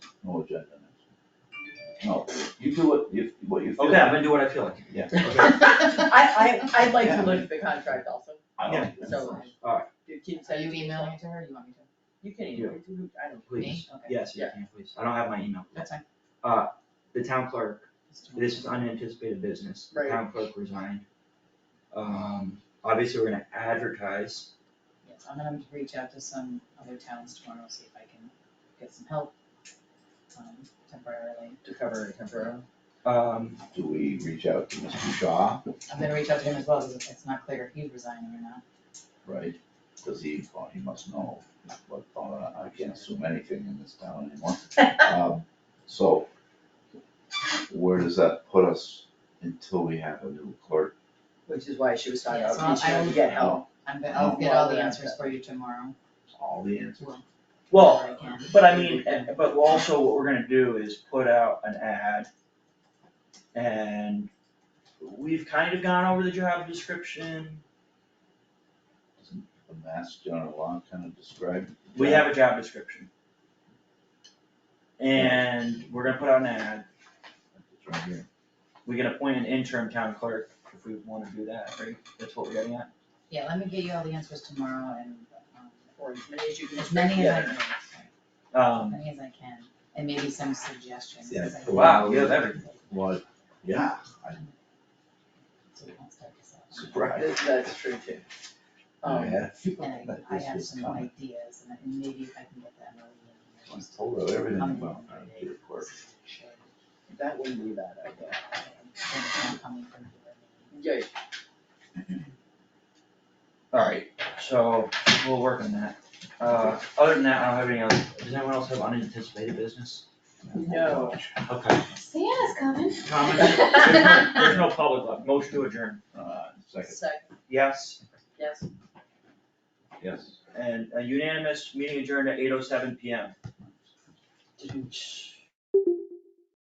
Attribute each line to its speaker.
Speaker 1: no agenda next. No, you do what, you, what you feel.
Speaker 2: Okay, I'm gonna do what I feel like.
Speaker 1: Yeah.
Speaker 2: Okay,
Speaker 3: I, I, I'd like to look at the contract also,
Speaker 1: I don't-
Speaker 3: so.
Speaker 2: Alright.
Speaker 3: You keep
Speaker 4: So
Speaker 3: sending.
Speaker 4: you emailing it to her, or you want me to?
Speaker 3: You can email, it to- I don't.
Speaker 2: Please,
Speaker 4: Me? Okay,
Speaker 2: yes, you
Speaker 3: Yeah.
Speaker 2: can, please. I don't have my email.
Speaker 4: that's fine.
Speaker 2: The town clerk, this is unanticipated business. The
Speaker 3: Right.
Speaker 2: town clerk resigned. Um, obviously, we're gonna advertise.
Speaker 4: Yes, I'm gonna reach out to some other towns tomorrow, see if I can get some help, um, temporarily.
Speaker 3: To cover it temporarily.
Speaker 2: Um,
Speaker 1: Do we reach out to Mr. Shaw,
Speaker 4: I'm gonna reach out to him as well, because it's not clear if he's resigning or not.
Speaker 1: right? Cause he, well, he must know, but, uh, I can't assume anything in this town anymore. Um, So, where does that put us until we have a new clerk?
Speaker 3: Which is why she was talking
Speaker 4: Yeah, so
Speaker 3: about reaching
Speaker 4: I
Speaker 3: out to
Speaker 4: will-
Speaker 3: get help.
Speaker 4: I'm gonna, I'll get all the answers for you tomorrow.
Speaker 1: All the answers.
Speaker 2: well,
Speaker 4: whenever I can.
Speaker 2: but I mean, and- but also what we're gonna do is put out an ad. And we've kind of gone over the job description.
Speaker 1: Doesn't the mass general law kind of describe?
Speaker 2: We have a job description. And we're gonna put out an ad.
Speaker 1: It's right here.
Speaker 2: We can appoint an interim town clerk if we wanna do that, right? That's what we're getting at?
Speaker 4: Yeah, let me get you all the answers tomorrow and, um,
Speaker 3: Or as many as you can.
Speaker 4: as many as I can, as
Speaker 2: Um,
Speaker 4: many as I can, and maybe some suggestions,
Speaker 1: Yeah,
Speaker 4: because I.
Speaker 1: cool.
Speaker 2: wow, you have everything.
Speaker 1: Well, yeah, I'm
Speaker 4: So we won't start this out.
Speaker 1: surprised.
Speaker 3: That's true too.
Speaker 1: I
Speaker 3: Um,
Speaker 1: had a feeling
Speaker 4: And
Speaker 1: that
Speaker 4: I
Speaker 1: this
Speaker 4: have
Speaker 1: was
Speaker 4: some
Speaker 1: coming.
Speaker 4: ideas, and then maybe if I can get that.
Speaker 1: I told her everything
Speaker 4: I'm
Speaker 1: about
Speaker 4: gonna
Speaker 1: that, dear clerk.
Speaker 3: that wouldn't be a bad idea. Yeah,
Speaker 2: Alright, so we'll work on that. Uh, other than that, I don't have any other, does anyone else have unanticipated business?
Speaker 3: no.
Speaker 2: Okay.
Speaker 4: Santa's coming.
Speaker 2: Comments? There's no- There's no public left. Motion to adjourn.
Speaker 1: Uh, second,
Speaker 3: Second,
Speaker 2: Yes,
Speaker 3: yes.
Speaker 1: yes.
Speaker 2: and a unanimous meeting adjourned at eight oh seven P M.
Speaker 3: Didn't-